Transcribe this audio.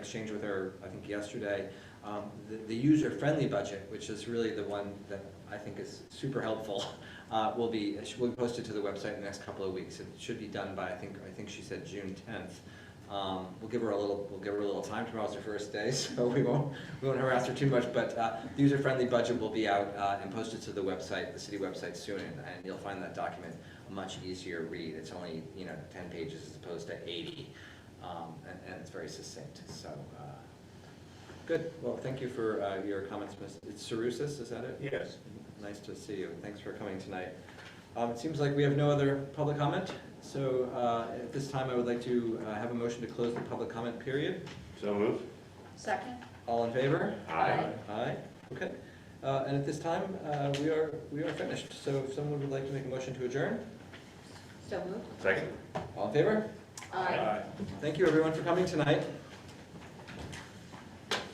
exchange with her, I think yesterday, um, the, the user-friendly budget, which is really the one that I think is super helpful, uh, will be, will be posted to the website in the next couple of weeks. It should be done by, I think, I think she said June tenth. Um, we'll give her a little, we'll give her a little time, tomorrow's her first day, so we won't, we won't harass her too much, but, uh, the user-friendly budget will be out, uh, and posted to the website, the city website soon, and, and you'll find that document a much easier read. It's only, you know, ten pages as opposed to eighty, um, and, and it's very succinct, so, uh, good. Well, thank you for, uh, your comments, Ms. It's Sarusis, is that it? Yes. Nice to see you, and thanks for coming tonight. Um, It seems like we have no other public comment, so uh, at this time, I would like to uh, have a motion to close the public comment period. So moved? Second? All in favor? Aye. Aye, okay. Uh, And at this time, uh, we are, we are finished, so if someone would like to make a motion to adjourn, So moved? Second? all in favor? Thank you, everyone, for coming tonight.